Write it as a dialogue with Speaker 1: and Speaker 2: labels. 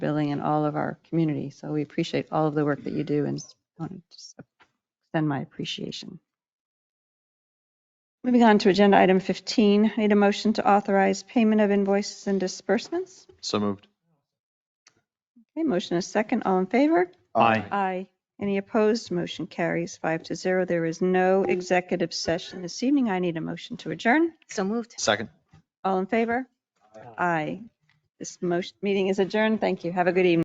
Speaker 1: billing in all of our community. So we appreciate all of the work that you do and I want to just extend my appreciation. Moving on to agenda item 15, I need a motion to authorize payment of invoices and disbursements.
Speaker 2: So moved.
Speaker 1: Okay, motion is second. All in favor?
Speaker 2: Aye.
Speaker 1: Aye. Any opposed? Motion carries five to zero. There is no executive session this evening. I need a motion to adjourn.
Speaker 3: So moved.
Speaker 2: Second.
Speaker 1: All in favor? Aye. This motion, meeting is adjourned. Thank you. Have a good evening.